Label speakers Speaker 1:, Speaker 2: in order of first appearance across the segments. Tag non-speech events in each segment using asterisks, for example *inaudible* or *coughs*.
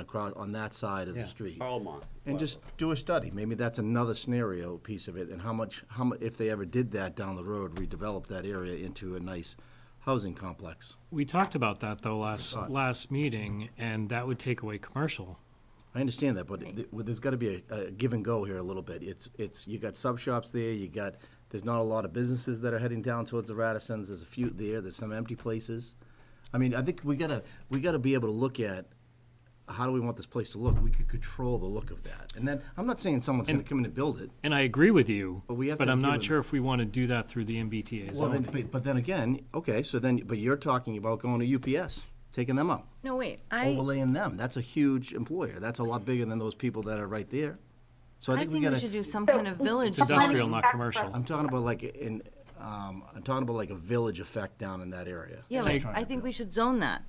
Speaker 1: across, on that side of the
Speaker 2: Yeah.
Speaker 1: street.
Speaker 3: Belmont.
Speaker 1: And just do a study, maybe that's another scenario piece of it, and how much, how mu, if they ever did that down the road, redevelop that area into a nice housing complex.
Speaker 4: We talked about that though last,
Speaker 1: thought.
Speaker 4: last meeting, and that would take away commercial.
Speaker 1: I understand that, but th- well, there's gotta be a, a give and go here a little bit. It's, it's, you got sub shops there, you got, there's not a lot of businesses that are heading down towards the Radissons, there's a few there, there's some empty places. I mean, I think we gotta, we gotta be able to look at, how do we want this place to look? We could control the look of that. And then, I'm not saying someone's gonna come in and build it.
Speaker 4: And I agree with you,
Speaker 1: But we have
Speaker 4: but
Speaker 1: to
Speaker 4: I'm not
Speaker 1: give
Speaker 4: sure if we want to do that through the MBTA
Speaker 1: Well, then,
Speaker 4: zone.
Speaker 1: but, but then again, okay, so then, but you're talking about going to UPS, taking them out,
Speaker 5: No, wait, I,
Speaker 1: overlaying them. That's a huge employer. That's a lot bigger than those people that are right there. So I
Speaker 5: I
Speaker 1: think we
Speaker 5: think we should
Speaker 1: gotta,
Speaker 5: do some kind of village
Speaker 4: It's industrial,
Speaker 5: zoning.
Speaker 4: not commercial.
Speaker 1: I'm talking about like in, um, I'm talking about like a village effect down in that area.
Speaker 5: Yeah,
Speaker 4: Just
Speaker 5: like,
Speaker 1: trying
Speaker 5: I
Speaker 1: to
Speaker 5: think we should zone that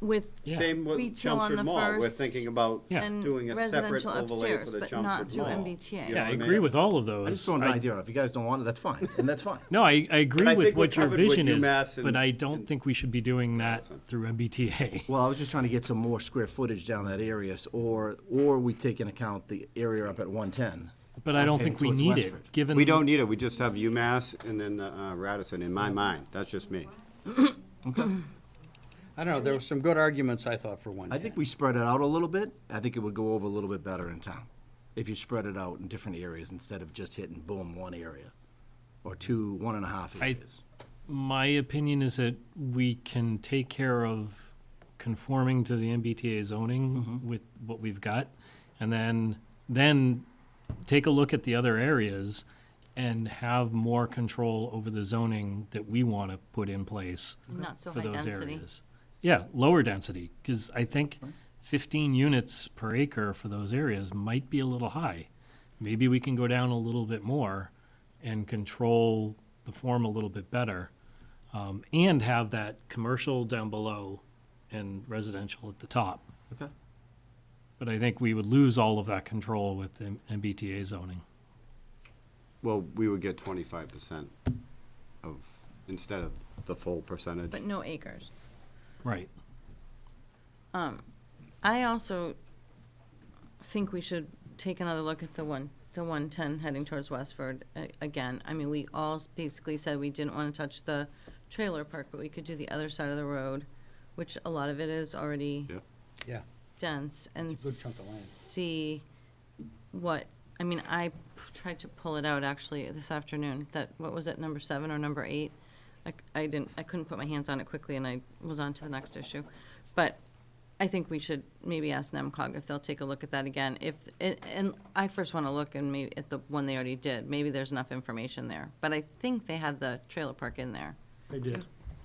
Speaker 5: with,
Speaker 3: Same with
Speaker 5: Retail on
Speaker 3: Chelmsford
Speaker 5: the
Speaker 3: Mall, we're
Speaker 5: first
Speaker 3: thinking about
Speaker 4: Yeah.
Speaker 5: and
Speaker 3: doing a separate
Speaker 5: residential
Speaker 3: overlay
Speaker 5: upstairs,
Speaker 3: for the
Speaker 5: but
Speaker 3: Chelmsford Mall.
Speaker 5: not through
Speaker 3: You
Speaker 5: MBTA.
Speaker 3: know
Speaker 4: Yeah, I
Speaker 3: what mean?
Speaker 4: agree with all of those.
Speaker 1: I just throwing an
Speaker 4: I-
Speaker 1: idea out. If you guys don't want it, that's fine, and that's fine.
Speaker 4: No, I, I
Speaker 3: I
Speaker 4: agree
Speaker 3: think
Speaker 4: with
Speaker 3: we
Speaker 4: what your
Speaker 3: covered with
Speaker 4: vision is,
Speaker 3: UMass and-
Speaker 4: but I don't think we should be doing that through MBTA.
Speaker 1: Well, I was just trying to get some more square footage down that area, s- or, or we take into account the area up at one ten.
Speaker 4: But I don't
Speaker 1: Okay,
Speaker 4: think we
Speaker 1: towards
Speaker 4: need
Speaker 1: Westford.
Speaker 4: it, given.
Speaker 3: We don't need it, we just have UMass and then uh, Radisson, in my mind, that's just me.
Speaker 2: I don't know, there were some good arguments, I thought, for one.
Speaker 1: I think we spread it out a little bit. I think it would go over a little bit better in town if you spread it out in different areas instead of just hitting boom one area or two, one and a half
Speaker 4: I-
Speaker 1: areas.
Speaker 4: My opinion is that we can take care of conforming to the MBTA zoning with what we've got, and then, then take a look at the other areas and have more control over the zoning that we want to put in place
Speaker 5: Not so
Speaker 4: for
Speaker 5: high
Speaker 4: those
Speaker 5: density.
Speaker 4: areas. Yeah, lower density, because I think fifteen units per acre for those areas might be a little high. Maybe we can go down a little bit more and control the form a little bit better. Um, and have that commercial down below and residential at the top.
Speaker 1: Okay.
Speaker 4: But I think we would lose all of that control with the MBTA zoning.
Speaker 3: Well, we would get twenty-five percent of, instead of the full percentage.
Speaker 5: But no acres.
Speaker 4: Right.
Speaker 5: I also think we should take another look at the one, the one-ten heading towards Westford a- again. I mean, we all basically said we didn't want to touch the trailer park, but we could do the other side of the road, which a lot of it is already
Speaker 3: Yeah.
Speaker 2: Yeah,
Speaker 5: dense and
Speaker 2: It's a good chunk of land.
Speaker 5: see what, I mean, I p- tried to pull it out actually this afternoon, that, what was it, number seven or number eight? I, c- I didn't, I couldn't put my hands on it quickly and I was on to the next issue. But I think we should maybe ask NEMCOG if they'll take a look at that again. If, and, and I first want to look and maybe at the one they already did, maybe there's enough information there. But I think they had the trailer park in there,
Speaker 4: They did.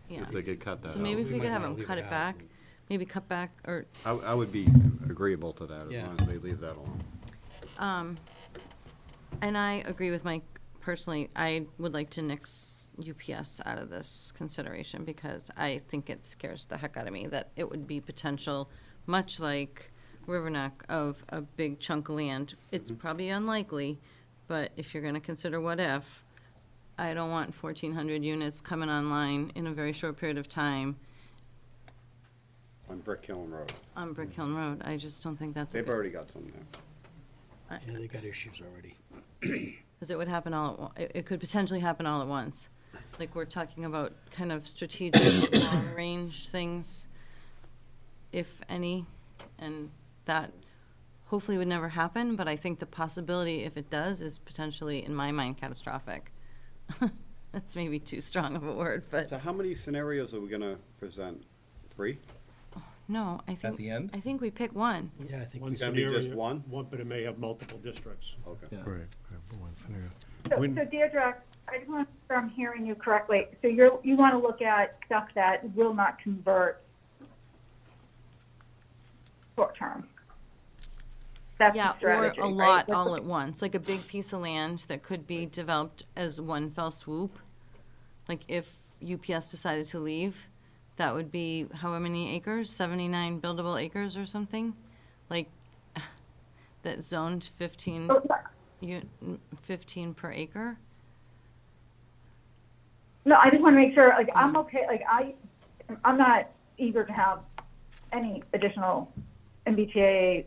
Speaker 5: yeah.
Speaker 3: If they could cut that out.
Speaker 5: So maybe if
Speaker 2: We
Speaker 5: we
Speaker 2: might
Speaker 5: could have
Speaker 2: wanna
Speaker 5: them
Speaker 2: leave
Speaker 5: cut
Speaker 2: it
Speaker 5: it
Speaker 2: out.
Speaker 5: back, maybe cut back or
Speaker 3: I, I would be agreeable to that, as
Speaker 2: Yeah.
Speaker 3: long as they leave that alone.
Speaker 5: And I agree with Mike personally. I would like to nix UPS out of this consideration because I think it scares the heck out of me that it would be potential, much like Riverneck, of a big chunk of land. It's probably unlikely, but if you're going to consider what if, I don't want 1,400 units coming online in a very short period of time
Speaker 3: On Brick Hill Road,
Speaker 5: on Brick Hill Road. I just don't think that's a
Speaker 3: they've
Speaker 5: good,
Speaker 3: already got some there.
Speaker 2: yeah, they got issues already.
Speaker 5: because it would happen all at once. It, it could potentially happen all at once. Like we're talking about kind of strategic
Speaker 1: *coughs*
Speaker 5: long range things, if any, and that hopefully would never happen. But I think the possibility, if it does, is potentially, in my mind, catastrophic. *laughs* That's maybe too strong of a word, but
Speaker 3: So how many scenarios are we gonna present? Three?
Speaker 5: no, I think
Speaker 1: the end?
Speaker 5: I think we pick one.
Speaker 2: Yeah, I think
Speaker 6: One
Speaker 2: we
Speaker 3: It's gotta be just
Speaker 6: scenario-
Speaker 3: one?
Speaker 6: but it may have multiple districts.
Speaker 3: Okay.
Speaker 1: Yeah.
Speaker 7: Right, right, but one scenario.
Speaker 8: So
Speaker 7: When-
Speaker 8: so Deirdre, I just want, if I'm hearing you correctly, so you're, you want to look at stuff that will not convert short-term? That's
Speaker 5: Yeah,
Speaker 8: the
Speaker 5: or
Speaker 8: strategy,
Speaker 5: a
Speaker 8: right?
Speaker 5: lot
Speaker 8: That's
Speaker 5: all
Speaker 8: the-
Speaker 5: at once, like a big piece of land that could be developed as one fell swoop. Like if UPS decided to leave, that would be however many acres, seventy-nine buildable acres or something? Like, *sighs* that zoned fifteen,
Speaker 8: Oh,
Speaker 5: u- fifteen per acre?
Speaker 8: No, I just want to make sure, like, I'm okay, like, I, I'm not eager to have any additional MBTA